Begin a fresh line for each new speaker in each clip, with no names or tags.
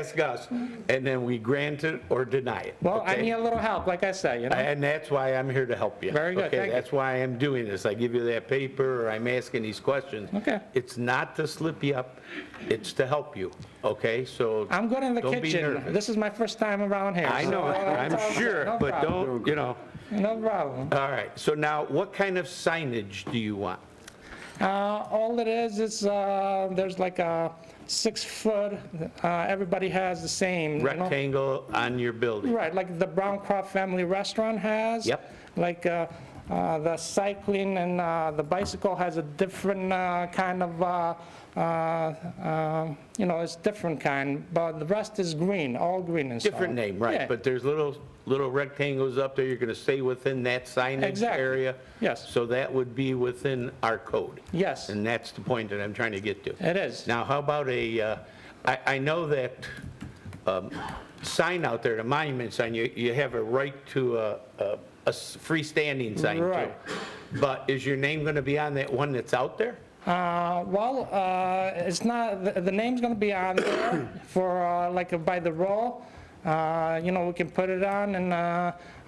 ask us, and then we grant it or deny it.
Well, I
okay?
need a little help, like I say, you know?
And that's why I'm here to help you.
Very good,
Okay,
thank you.
that's why I'm doing this. I give you that paper, or I'm asking these questions.
Okay.
It's not to slip you up, it's to help you, okay? So.
I'm good in the
don't be
kitchen.
nervous.
This is my first time around here.
I
so-
know, I'm sure,
No
but
problem.
don't, you know,
No problem.
all right. So now, what kind of signage do you want?
Uh, All it is, is uh, there's like a six-foot, uh, everybody has the same. you know?
Rectangle on your building?
Right, like the Brown Crop Family Restaurant has.
Yep.
Like uh, uh, the cycling and uh, the bicycle has a different uh, kind of, uh, uh, uh, you know, it's different kind, but the rest is green, all green and so on.
Different name,
Yeah.
right, but there's little, little rectangles up there, you're going to stay within that signage
Exactly.
area?
Yes.
So that would be within our code?
Yes.
And that's the point that I'm trying to get to.
It is.
Now, how about a, uh, I, I know that um, sign out there, the monument sign, you, you have a right to a, a- a s- freestanding sign too.
Right.
But is your name going to be on that one that's out there?
Uh, Well, uh, it's not, the- the name's going to be on there for, uh, like, by the roll. Uh, You know, we can put it on, and uh,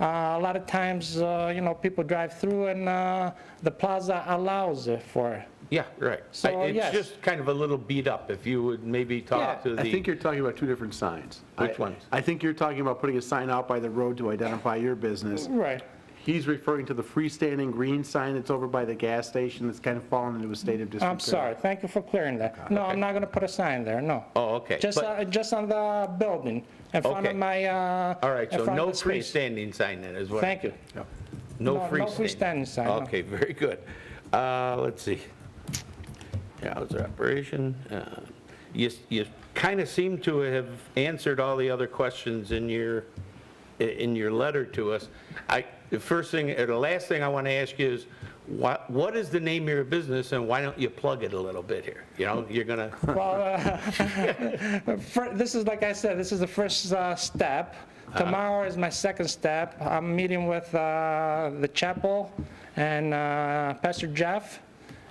uh, a lot of times, uh, you know, people drive through, and uh, the plaza allows it for it.
Yeah, right.
So,
I-
yes.
It's just kind of a little beat up, if you would maybe talk
Yeah.
to the.
I think you're talking about two different signs.
Which
I-
ones?
I think you're talking about putting a sign out by the road to identify your business.
Right.
He's referring to the freestanding green sign that's over by the gas station that's kind of fallen into a state of disrepair.
I'm sorry, thank you for clearing that. No, I'm not going to put a sign there, no.
Oh, okay,
Just,
but-
uh, just on the building, in front of
Okay.
my, uh...
All right,
in
so
front of
no
the space.
freestanding sign then as well?
Thank you.
Yep.
No
No- no
freestanding?
freestanding sign, no.
Okay, very good. Uh, Let's see. Hours of operation. uh, You, you kind of seem to have answered all the other questions in your, in your letter to us. I, the first thing, or the last thing I want to ask you is, what, what is the name of your business and why don't you plug it a little bit here? You know, you're going to,
Well, uh, fir- this is, like I said, this is the first uh, step.
Uh-huh.
Tomorrow is my second step. I'm meeting with uh, the chapel and uh, Pastor Jeff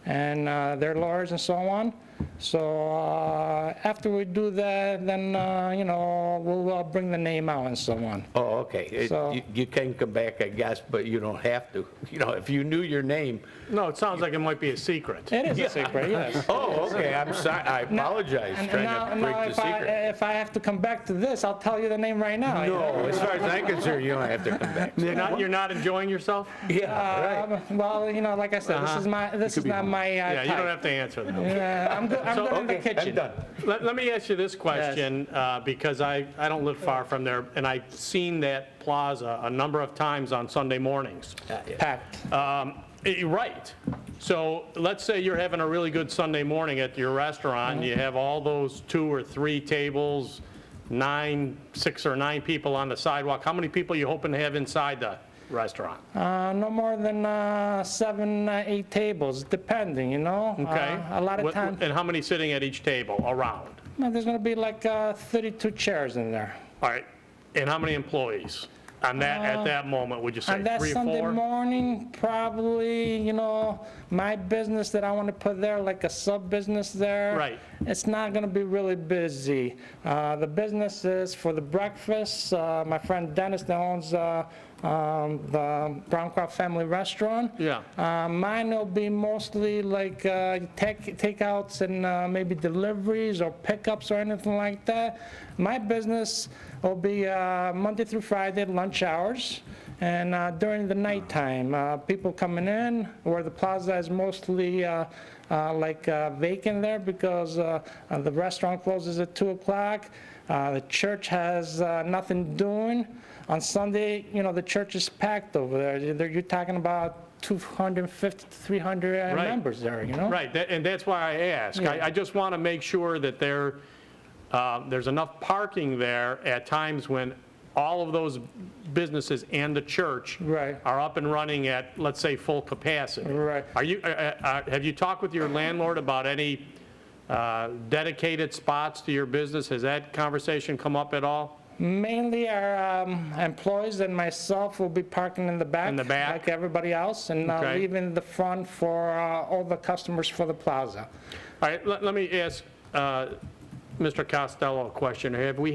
and uh, their lawyers and so on. So uh, after we do that, then, uh, you know, we'll uh, bring the name out and so on.
oh, okay. It-
So-
you- You can come back, I guess, but you don't have to. You know, if you knew your name,
No, it sounds like it might be a secret.
It is a secret, yes.
Oh, okay, I'm sorry, I apologize,
And now,
trying to
now
break the
if I, uh,
secret.
if I have to come back to this, I'll tell you the name right now. you know?
No, Oh, as far as I'm concerned, you don't have to come back.
You're not, you're not enjoying yourself?
Yeah, right.
Um, Well, you know, like I said,
Uh-huh.
this is my, this is not my uh,
Yeah, you don't
type.
have to answer that.
Yeah, I'm good, I'm
So,
good in the
Okay, I'm
kitchen.
done.
Let, let me ask you this question, uh, because I, I don't live far from there, and I've seen that plaza a number of times on Sunday mornings.
Packed.
Um, eh, Right. So let's say you're having a really good Sunday morning at your restaurant, and you have all those two or three tables, nine, six or nine people on the sidewalk. How many people you hoping to have inside the restaurant?
Uh, No more than uh, seven, uh, eight tables, depending, you know?
Okay?
Uh, A lot of
What- eh?
times,
And how many sitting at each table, around?
there's going to be like uh, 32 chairs in there.
All right, and how many employees on that, at that moment, would you say?
On Uh, that
three or
Sunday
four?
morning, probably, you know, my business that I want to put there, like a sub-business there.
Right.
It's not going to be really busy. Uh, The business is for the breakfast. Uh, My friend Dennis that owns uh, um, the Brown Crop Family Restaurant.
Yeah.
Uh, Mine will be mostly like uh, take takeouts and uh, maybe deliveries or pickups or anything like that. My business will be uh, Monday through Friday lunch hours and uh, during the nighttime, uh, people coming in where the plaza is mostly uh, uh, like uh, vacant there because uh, uh, the restaurant closes at 2 o'clock. Uh, The church has uh, nothing doing. On Sunday, you know, the church is packed over there. They're- You're talking about 250, 300
Right.
uh, members there, you know?
Right, that- and that's why I ask.
Yeah.
I, I just want to make sure that there, uh, there's enough parking there at times when all of those businesses and the church
Right.
are up and running at, let's say, full capacity.
Right.
Are you, uh, uh, have you talked with your landlord about any uh, dedicated spots to your business? Has that conversation come up at all?
Mainly our um, employees and myself will be parking in the back.
In the back?
Like everybody else, and uh,
Okay.
leaving the front for uh, all the customers for the plaza.
All right, let let me ask uh, Mr. Costello a question. Have we